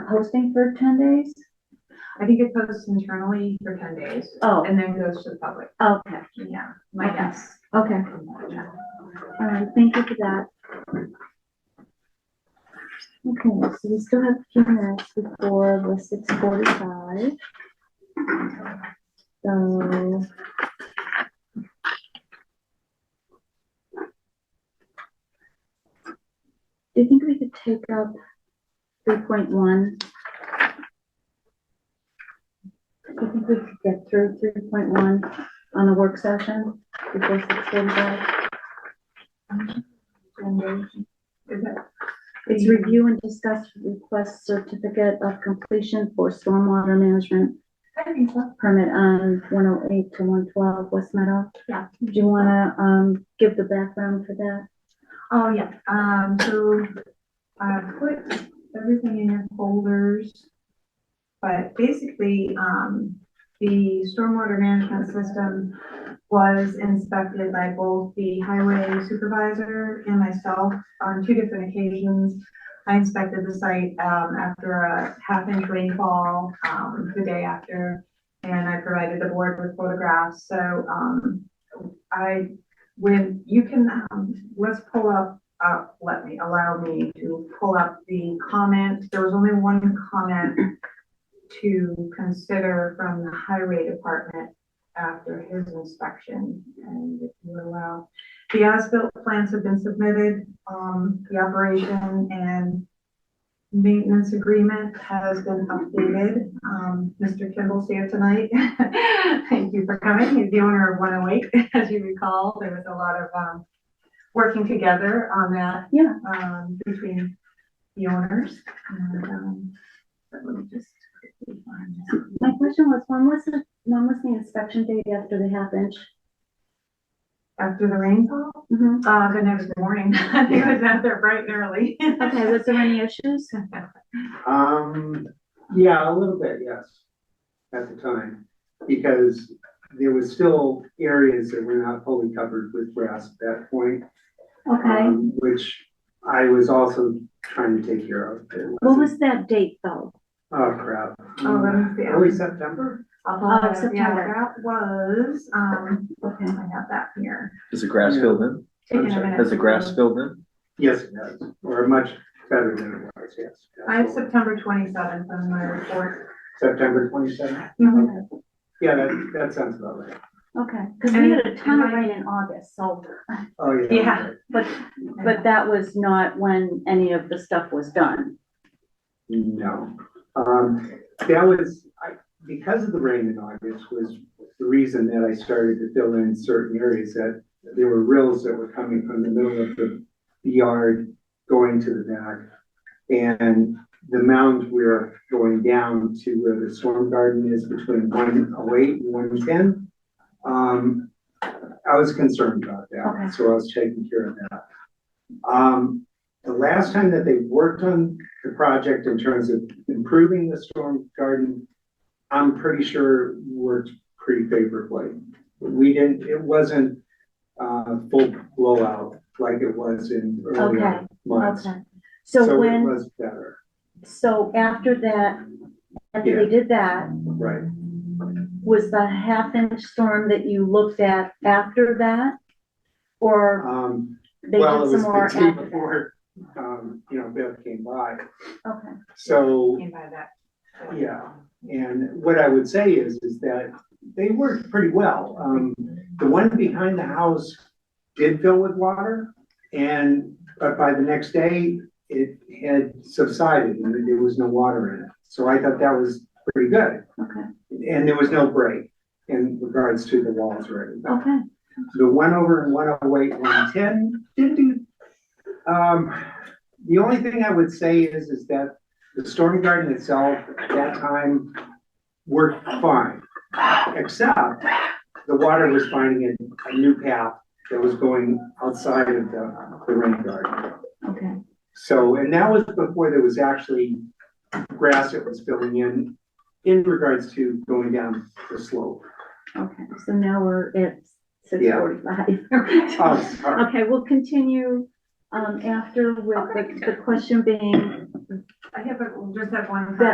posting for ten days? I think it posts internally for ten days. Oh. And then goes to the public, Okay, yeah, my Okay. guess. okay, all right, Um, thank you for that. Okay, so we still have a few minutes before the six forty-five. So. Do you think we could take up three point one? Do you think we could get through three point one on the work session before six forty-five? Is it? It's review and discuss request certificate of completion for stormwater management I think so. permit on one oh eight to one twelve West Meadow. Yeah. Do you wanna, um, give the background for that? Oh, yeah, um, so I put everything in your folders. But basically, um, the stormwater management system was inspected by both the highway supervisor and myself on two different occasions. I inspected the site, um, after a half inch rainfall, um, the day after. And I provided the board with photographs, so, um, I when you can, um, let's pull up, uh, let me, allow me to pull up the comment. There was only one comment to consider from the highway department after his inspection. And if you allow, the as-built plans have been submitted, um, the operation and maintenance agreement has been updated. Um, Mr. Kimball's here tonight. Thank you for coming. He's the owner of 108. As you recall, there was a lot of, um, working together on that. Yeah. Um, between the owners and, um, but let me just quickly find that. My question was, when was the, when was the inspection date after the half inch? After the rainfall, Mhm. uh, the next morning, he was out there bright and early. Oh, Okay, was there any issues? Um, yeah, a little bit, yes, at the time, because there was still areas that were not fully covered with grass at that point. Okay, um, Which I was also trying to take care of. It what was wasn't- that date though? Oh, crap. Oh, let me see. Early September? Uh, Oh, September. Yeah, that was, um, I Okay, have that here. Is the grass Yeah. filled in? I'm Taking a sorry, minute Has the to grass load. filled in? Yes, it does, or much better than it was, yes. I have absolutely. September twenty-seventh on my report. September twenty-seventh? Oh, Yeah, that, that sounds about right. okay, Mm-hmm. cause we had a ton of And- rain in August, so, Oh, yeah. Yeah. but, but that was not when any of the stuff was done. No, um, that was, I, because of the rain in August was the reason that I started to fill in certain areas that there were rills that were coming from the middle of the yard going to the back. And the mound we're going down to where the storm garden is between one oh eight and one ten. Um, I was concerned about Okay. that, so I was taking care of that. Um, the last time that they worked on the project in terms of improving the storm garden, I'm pretty sure worked pretty favorably. We didn't, it wasn't, uh, full blowout like it was in Okay, earlier months. Okay, so it when, was better, so after that, after Yeah. they did that, right. was the half inch storm that you looked at after that? Or Um, they did well, it some was more the day after before, um, you know, Beth came by. that? Okay. So Came by that. Yeah. And what I would say is, is that they worked pretty well. Um, the one behind the house did fill with water. And, but by the next day, it had subsided and there was no water in it. So I thought that was pretty good. Okay. And there was no break in regards to the walls or anything. Okay, The one over in one oh eight, one ten, didn't do. Um, the only thing I would say is, is that the storm garden itself at that time worked fine. Except the water was finding a, a new path that was going outside of the, the rain garden. okay, So, and that was before there was actually grass that was filling in, in regards to going down the slope. okay, so now we're at six Yeah. forty-five. Oh, sorry. um, Okay, we'll continue, um, after with the, the question being I have, a- just have one. Yeah.